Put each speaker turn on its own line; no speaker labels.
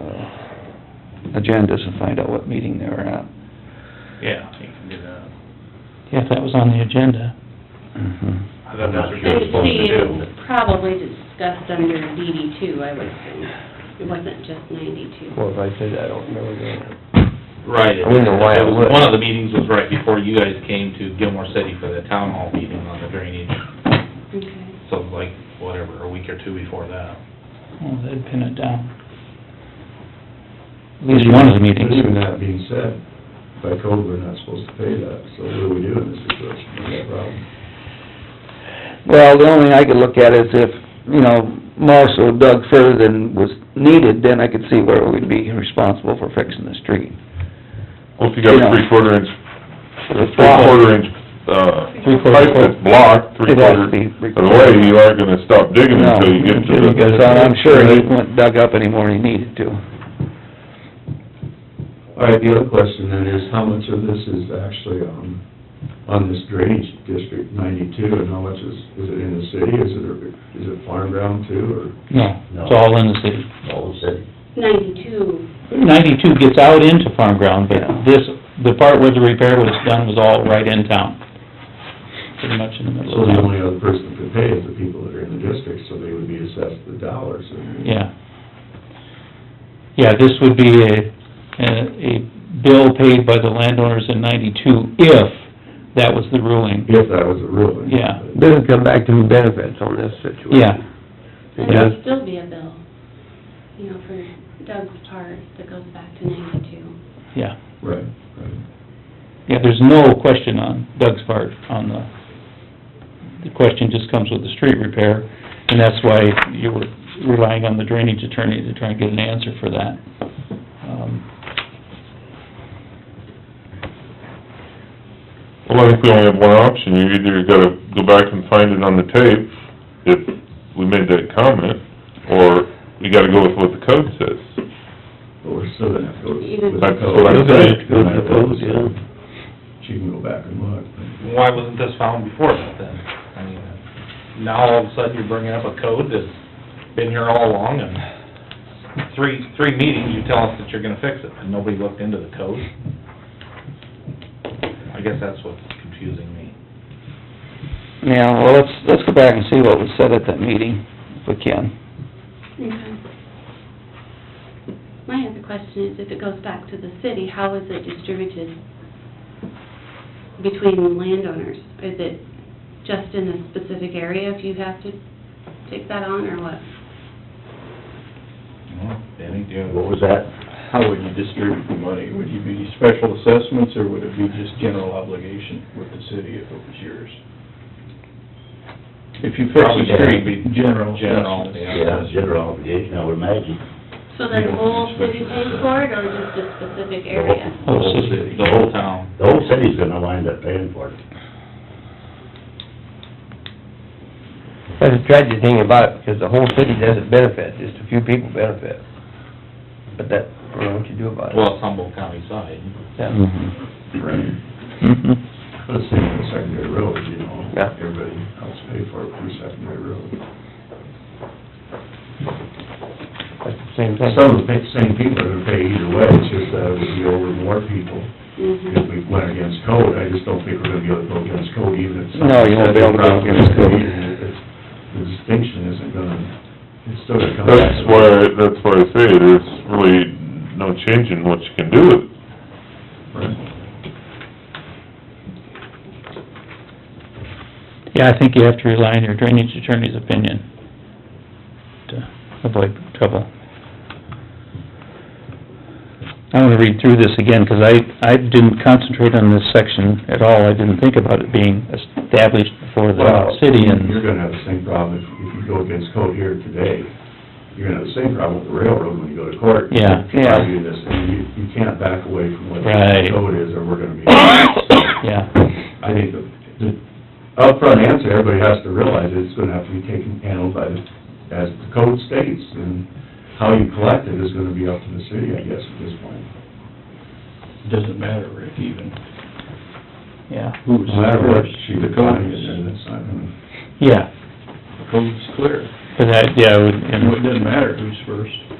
Uh, agendas and find out what meeting they were at.
Yeah, you can do that.
if that was on the agenda.
Mm-hmm.
I thought that's what you were
They
supposed to do.
probably discussed under DD two, I would assume. It wasn't just ninety-two.
Well, if I say that, I don't remember that.
Right.
I wonder why it would.
One of the meetings was right before you guys came to Gilmore City for the town hall meeting on the drainage,
Okay.
so like, whatever, a week or two before that.
Well, they'd pin it down.
At least one of the
But
meetings.
even that being said, by code, we're not supposed to pay that, so what do we do in this situation? That's a problem.
Well, the only thing I could look at is if, you know, Marshall dug further than was needed, then I could see where we'd be responsible for fixing the street.
Well, if you got a three-quarter inch,
It's
three-quarter inch, uh,
Three-quarter
pipe that's blocked,
It has to
three-quarter
be
of the way, you aren't gonna stop digging
No,
until you get to the...
because I'm sure he went dug up any more than he needed to.
All right, the other question then is, how much of this is actually on, on this drainage district ninety-two, and how much is, is it in the city, is it, is it farm ground too, or?
No, it's all in the city.
Ninety-two,
Ninety-two gets out into farm ground, but
Yeah.
this, the part where the repair was done was all right in town. Pretty much in the middle
So
of
the
town.
only other person that could pay is the people that are in the district, so they would be assessed the dollars, and
Yeah. Yeah, this would be a, a a bill paid by the landowners in ninety-two if that was the ruling.
if that was a ruling.
Yeah.
Doesn't come back to who benefits on this situation.
Yeah.
It
and
does.
there'd still be a bill, you know, for Doug's part that goes back to ninety-two.
Yeah,
Right, right.
yeah, there's no question on Doug's part on the, the question just comes with the street repair, and that's why you were relying on the drainage attorney to try and get an answer for that. Um,
Well, I think we only have one option, you either gotta go back and find it on the tape, if we made that comment, or we gotta go with what the code says.
But we're still gonna have to go
Even-
with the
That's
code.
what I'm saying.
We're gonna have to go with the
Yeah.
code. She can go back and look.
Why wasn't this found before that then? I mean, now all of a sudden you're bringing up a code that's been here all along and three, three meetings you tell us that you're gonna fix it and nobody looked into the code. I guess that's what's confusing me.
Yeah, well, let's, let's go back and see what was said at that meeting, if we can.
Okay. My other question is, if it goes back to the city, how is it distributed between landowners? Is it just in a specific area if you have to take that on, or what?
Well, Danny, do you have-
What was that? How would you distribute the money? Would you be special assessments, or would it be just general obligation with the city if it was yours? If you fix
Probably
the
should
street,
be
be general
general,
assessments.
yeah.
general obligation, I would imagine.
So then the whole city pays for it, or just a specific area?
The
Oh,
whole city.
The whole town.
The whole city's gonna wind up paying for it.
That's a tragic thing about it, because the whole city doesn't benefit, just a few people benefit. But that, I don't know what you do about it.
Well, it's Humboldt County side.
Yeah.
Mhm.
Right.
Mhm.
But it's same with secondary roads, you know,
Yeah.
everybody else pay for it through secondary roads.
That's the same thing.
Some of the pa- same people are gonna pay either way, it's just that it would be over more people
Mm-hmm.
if we went against code. I just don't think we're gonna be able to go against code even if.
No, you won't be able to go against code.
The distinction isn't gonna, it's still gonna come back.
That's why, that's why I say, there's really no change in what you can do with it.
Yeah, I think you have to rely on your drainage attorney's opinion to avoid trouble. I wanna read through this again, 'cause I, I didn't concentrate on this section at all. I didn't think about it being established before
Well,
the city
You're
and,
gonna have the same problem if, if you go against code here today. You're gonna have the same problem with the railroad when you go to court.
Yeah.
Yeah.
Argue this, and you, you can't back away from what the
Right.
code is, or we're gonna be.
yeah.
I think the, the upfront answer, everybody has to realize is it's gonna have to be taken, handled by the, as the code states, and how you collect it is gonna be up to the city, I guess, at this point.
Doesn't matter, Rick, even.
Yeah.
Who's
No matter what she
The code
defines, and
is,
it's not gonna.
Yeah,
the code's clear.
but I, yeah, I would,
It
and
doesn't matter who's first.